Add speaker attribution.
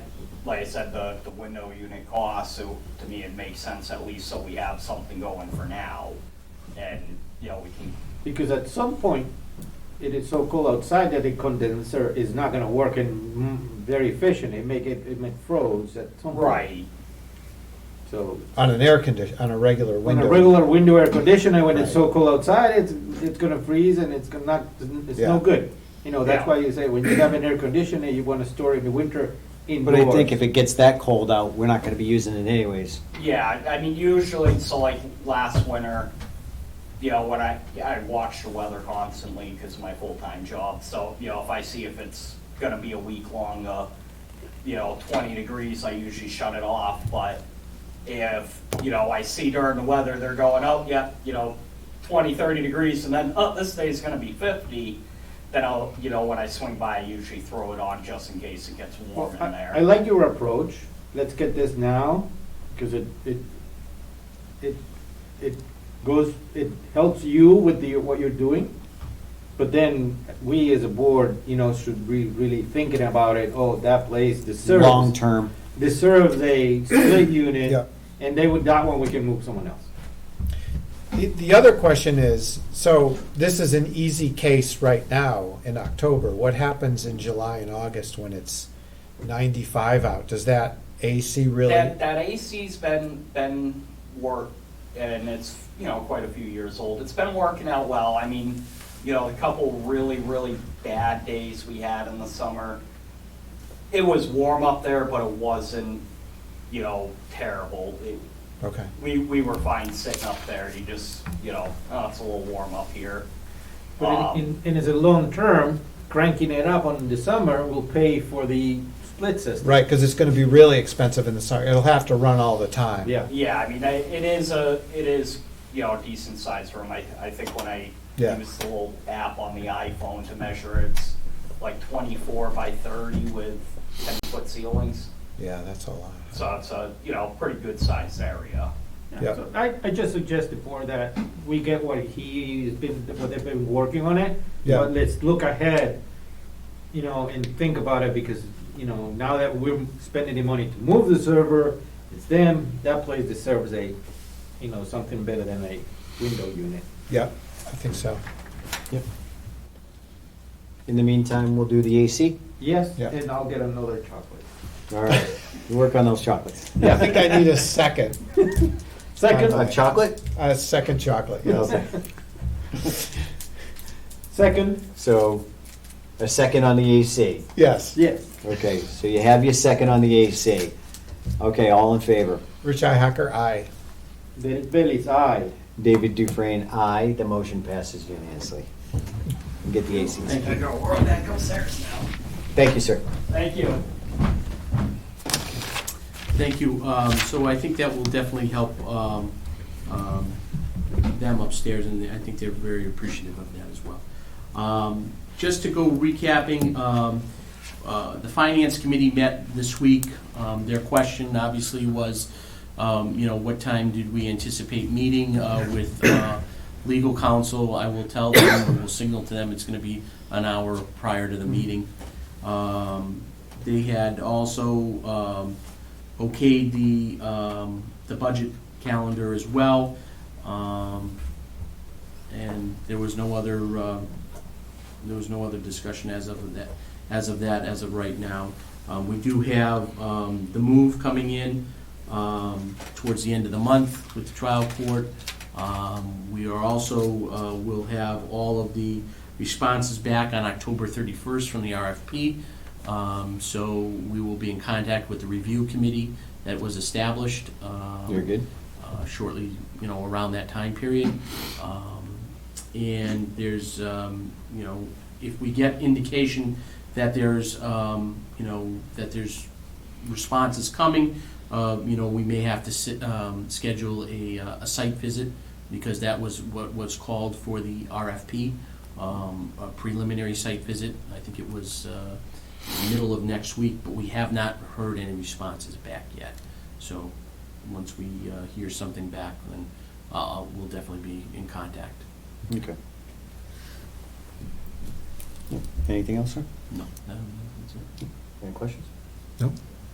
Speaker 1: like I said, the, the window unit cost, so to me, it makes sense at least so we have something going for now. And, you know, we can,
Speaker 2: Because at some point, it is so cold outside that the condenser is not gonna work and mm, very efficient, it make it, it may froze at some point.
Speaker 1: right,
Speaker 2: So,
Speaker 3: on an air condition, on a regular
Speaker 2: on
Speaker 3: window.
Speaker 2: a regular window air conditioner, when it's so cold outside, it's, it's gonna freeze and it's gonna not, it's no
Speaker 3: Yeah.
Speaker 2: good. You know,
Speaker 1: Yeah.
Speaker 2: that's why you say when you have an air conditioner, you wanna store it in the winter
Speaker 4: But
Speaker 2: indoors.
Speaker 4: I think if it gets that cold out, we're not gonna be using it anyways.
Speaker 1: yeah, I mean, usually, so like last winter, you know, when I, I watch the weather constantly because my full-time job, so, you know, if I see if it's gonna be a week long, uh, you know, twenty degrees, I usually shut it off, but if, you know, I see during the weather, they're going, oh, yeah, you know, 20, 30 degrees, and then, oh, this day's gonna be fifty, then I'll, you know, when I swing by, I usually throw it on just in case it gets warm
Speaker 2: Well,
Speaker 1: in
Speaker 2: I, I
Speaker 1: there.
Speaker 2: like your approach, let's get this now, because it, it, it, it goes, it helps you with the, what you're doing. But then, we as a board, you know, should be really thinking about it, oh, that place deserves.
Speaker 4: Long term,
Speaker 2: Deserves a split
Speaker 3: Yeah.
Speaker 2: unit, and they would, that one, we can move someone else.
Speaker 3: The, the other question is, so this is an easy case right now in October. What happens in July and August when it's ninety-five out? Does that AC really?
Speaker 1: That, that AC's been, been worked, and it's, you know, quite a few years old, it's been working out well, I mean, you know, the couple really, really bad days we had in the summer, it was warm up there, but it wasn't, you know, terrible. It-
Speaker 3: Okay.
Speaker 1: We, we were fine sitting up there, you just, you know, oh, it's a little warm up here.
Speaker 2: But
Speaker 1: Um,
Speaker 2: in, in, and as a long term, cranking it up on the summer will pay for the split system.
Speaker 3: Right, because it's going to be really expensive in the summer. It'll have to run all the time.
Speaker 2: Yeah.
Speaker 1: Yeah, I mean, I- it is a, it is, you know, a decent sized room. I, I think when I
Speaker 3: Yeah.
Speaker 1: use the little app on the iPhone to measure, it's like twenty-four by thirty with ten-foot ceilings.
Speaker 3: Yeah, that's a lot.
Speaker 1: So it's a, you know, pretty good sized area.
Speaker 3: Yeah.
Speaker 2: So I, I just suggest before that we get what he's been, what they've been working on it.
Speaker 3: Yeah.
Speaker 2: But let's look ahead, you know, and think about it because, you know, now that we're spending the money to move the server, it's them, that place deserves a, you know, something better than a window unit.
Speaker 3: Yeah, I think so.
Speaker 4: in the meantime, we'll do the AC.
Speaker 2: Yes,
Speaker 3: Yeah.
Speaker 2: and I'll get another chocolate.
Speaker 4: All right, we work on those chocolates.
Speaker 3: I think I need a second,
Speaker 4: A
Speaker 2: Second,
Speaker 3: Uh,
Speaker 4: chocolate?
Speaker 3: a second chocolate.
Speaker 4: Yeah,
Speaker 3: Yes.
Speaker 4: okay.
Speaker 2: second,
Speaker 4: So, a second on the AC.
Speaker 3: Yes.
Speaker 2: yes.
Speaker 4: Okay, so you have your second on the AC. Okay, all in favor?
Speaker 3: Rich I Hacker, aye.
Speaker 2: Derek Bailey's aye.
Speaker 4: David Dufresne, aye. The motion passes unanimously. Get the AC.
Speaker 1: I go, where that goes there now?
Speaker 4: Thank you, sir.
Speaker 1: Thank you.
Speaker 5: Thank you. Um, So I think that will definitely help um, um, them upstairs, and I think they're very appreciative of that as well. Um, Just to go recapping, um, uh, the Finance Committee met this week. Um, Their question obviously was, um, you know, what time did we anticipate meeting uh, with uh, legal counsel? I will tell them, or will signal to them, it's going to be an hour prior to the meeting. Um, They had also um, okayed the, um, the budget calendar as well. Um, and there was no other, uh, there was no other discussion as of that, as of that, as of right now. Um, we do have, um, the move coming in, um, towards the end of the month with the trial court. Um, we are also, uh, will have all of the responses back on October thirty-first from the RFP. Um, so we will be in contact with the review committee that was established, um,
Speaker 4: You're good?
Speaker 5: uh, shortly, you know, around that time period. Um, And there's, um, you know, if we get indication that there's, um, you know, that there's responses coming, uh, you know, we may have to sit, um, schedule a, uh, a site visit because that was what was called for the RFP, um, a preliminary site visit. I think it was uh, middle of next week, but we have not heard any responses back yet. So once we uh, hear something back, then uh, we'll definitely be in contact.
Speaker 4: Okay. Anything else, sir?
Speaker 5: No, no, no, that's it.
Speaker 4: Any questions?
Speaker 3: No.